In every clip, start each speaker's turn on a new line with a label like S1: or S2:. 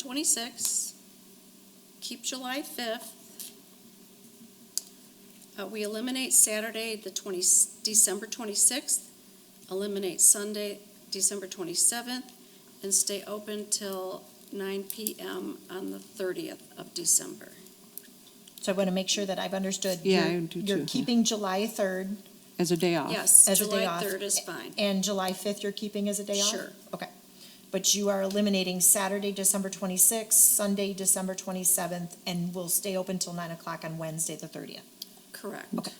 S1: 2026. Keep July 5th. Uh, We eliminate Saturday, the 20, December 26th, eliminate Sunday, December 27th, and stay open till 9 PM on the 30th of December.
S2: So I want to make sure that I've understood.
S3: Yeah,
S2: You're-
S3: I do
S2: You're
S3: too.
S2: keeping July 3rd
S3: As a day off?
S1: Yes,
S2: as a day
S1: July
S2: off.
S1: 3rd is fine.
S2: and July 5th you're keeping as a day off?
S1: Sure.
S2: Okay. But you are eliminating Saturday, December 26th, Sunday, December 27th, and will stay open till 9 o'clock on Wednesday, the 30th.
S1: Correct.
S2: Okay.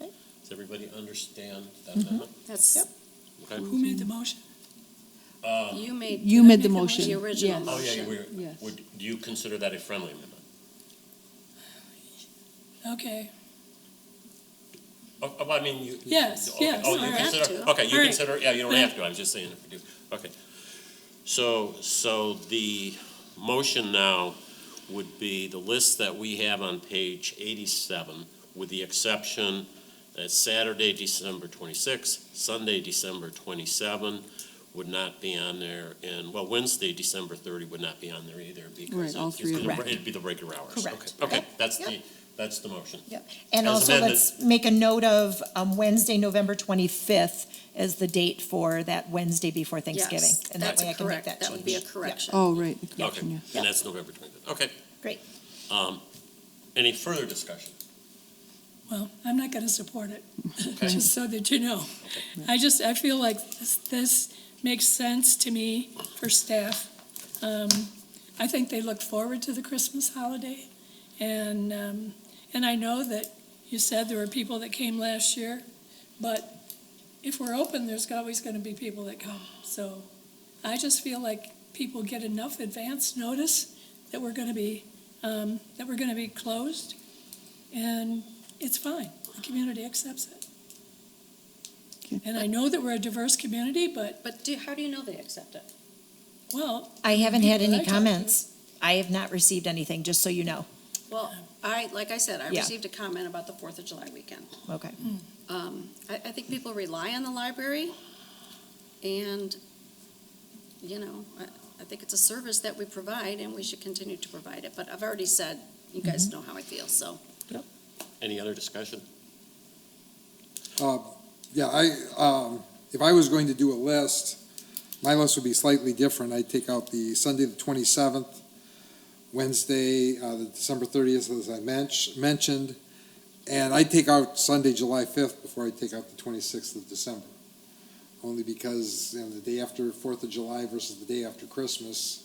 S4: Does everybody understand that amendment?
S1: That's,
S2: Yep.
S4: Okay.
S5: Who made the motion?
S1: you made.
S3: You made the
S5: Make a
S3: motion.
S1: The original
S3: yes.
S4: Uh, Oh, yeah, you
S1: motion.
S4: were-
S3: Yes.
S4: would, do you consider that a friendly amendment?
S5: Okay,
S4: Oh, oh, I mean, you.
S5: Yes,
S4: okay.
S5: yes,
S4: Oh,
S5: all
S4: you
S5: right.
S4: consider,
S1: Have to.
S4: okay,
S5: All
S4: you
S5: right.
S4: consider, yeah, you don't
S5: Yeah.
S4: have to, I'm just saying if you do, okay. So, so the motion now would be the list that we have on page eighty-seven, with the exception that Saturday, December twenty-sixth, Sunday, December twenty-seven would not be on there, and, well, Wednesday, December thirty would not be on there either, because
S3: Right, all
S4: it-
S3: three
S4: it's
S3: of
S4: gonna-
S2: them.
S4: it'd be the regular hours. Okay,
S2: Correct.
S4: Okay,
S2: Yep.
S4: that's the,
S2: Yep.
S4: that's the motion.
S2: Yep. And
S4: As
S2: also,
S4: amended.
S2: let's make a note of um, Wednesday, November 25th as the date for that Wednesday before Thanksgiving.
S1: Yes,
S2: And that
S1: that's
S2: way I can make
S1: correct.
S2: that change.
S1: That would be a
S2: Yeah.
S1: correction.
S3: Oh, right, the correction,
S4: Okay,
S3: yeah.
S4: and that's November twenty-fifth, okay.
S2: Great.
S4: Um, any further discussion?
S5: well, I'm not gonna support it,
S4: Okay,
S5: just so that you know. I just, I feel like this, this makes sense to me for staff. Um, I think they look forward to the Christmas holiday, and, um, and I know that you said there were people that came last year, but if we're open, there's always gonna be people that come, so I just feel like people get enough advance notice that we're gonna be, um, that we're gonna be closed, and it's fine. The community accepts it. And I know that we're a diverse community, but,
S1: But do, how do you know they accept it?
S5: well,
S2: I haven't had
S5: People that I
S2: any
S5: talked to.
S2: comments. I have not received anything, just so you know.
S1: Well, I, like I said, I
S2: Yeah.
S1: received a comment about the Fourth of July weekend.
S2: Okay.
S1: Um, I, I think people rely on the library, and, you know, I, I think it's a service that we provide, and we should continue to provide it, but I've already said, you guys
S2: Mm-hmm.
S1: know how I feel, so.
S4: any other discussion?
S6: Uh, Yeah, I, um, if I was going to do a list, my list would be slightly different. I'd take out the Sunday, the twenty-seventh, Wednesday, uh, the December thirtieth, as I mench- mentioned, and I'd take out Sunday, July fifth, before I take out the twenty-sixth of December. Only because, you know, the day after Fourth of July versus the day after Christmas,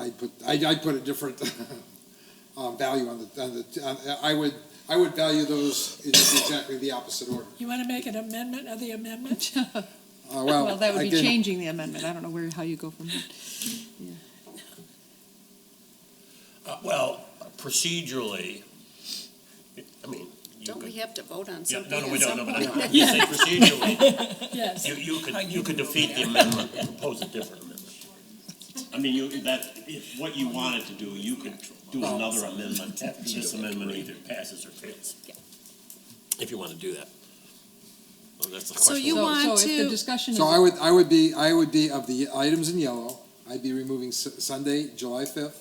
S6: I'd put, I'd, I'd put a different, um, value on the, on the, on- I would, I would value those in exactly the opposite order.
S5: you want to make an amendment of the amendment?
S6: Uh,
S3: Well, that would be
S6: again,
S3: changing the amendment, I don't know where, how you go from there.
S4: Uh, well, procedurally, I mean, you
S1: Don't we
S4: could.
S1: have to vote on
S4: Yeah,
S1: something?
S4: no, no,
S1: at
S4: we don't,
S1: some
S4: no, but
S1: point?
S4: I'm, you say procedurally,
S5: Yes.
S4: you, you could, you could defeat the amendment, and propose a different amendment. I mean, you, that, if what you wanted to do, you could do another amendment after this amendment either passes or fails. If you wanna do that. Well, that's the
S1: So
S4: question.
S1: You
S3: So-
S1: want
S3: So if
S1: to-
S3: the discussion is,
S6: So I would, I would be, I would be of the items in yellow, I'd be removing Su- Sunday, July fifth.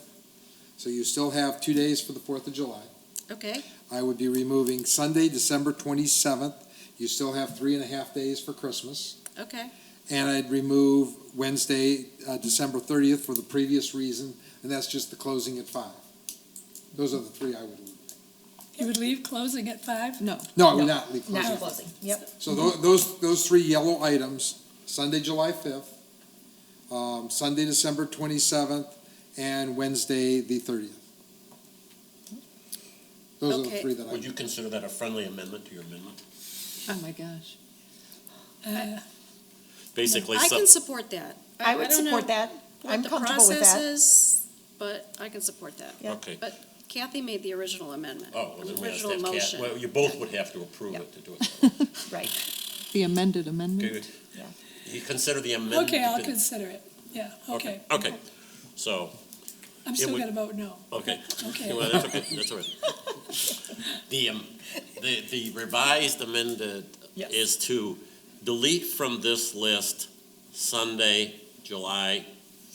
S6: So you still have two days for the Fourth of July.
S1: Okay,
S6: I would be removing Sunday, December twenty-seventh. You still have three and a half days for Christmas.
S1: okay,
S6: And I'd remove Wednesday, uh, December thirtieth for the previous reason, and that's just the closing at five. Those are the three I would leave.
S5: You would leave closing at five?
S3: no.
S6: No, I would not leave closing.
S2: Not
S6: at five.
S2: closing. Yep.
S6: So tho- those, those three yellow items, Sunday, July fifth, um, Sunday, December twenty-seventh, and Wednesday, the thirtieth. Those are the
S1: Okay.
S6: three that I,
S4: Would you consider that a friendly amendment to your amendment?
S3: Oh, my gosh.
S5: Uh,
S4: Basically,
S1: I
S4: so-
S1: can support that.
S2: I would
S1: don't know
S2: support that.
S1: what
S2: I'm
S1: the
S2: comfortable with
S1: process
S2: that.
S1: is, But I can support that.
S2: Yeah.
S4: okay.
S1: But Kathy made the original amendment.
S4: Oh, well, then we have to
S1: original
S4: have Kat,
S1: motion.
S4: well, you both would have to approve
S2: Yeah.
S4: it to do it.
S2: Right.
S3: The amended amendment.
S4: Good.
S2: Yeah.
S4: You consider the amendment?
S5: Okay, I'll consider it. Yeah, okay.
S4: Okay, so,
S5: I'm still
S4: would-
S5: gonna vote no.
S4: okay,
S5: Okay.
S4: well, that's okay, that's all right. The, um, the, the revised amended
S2: Yes.
S4: is to delete from this list Sunday, July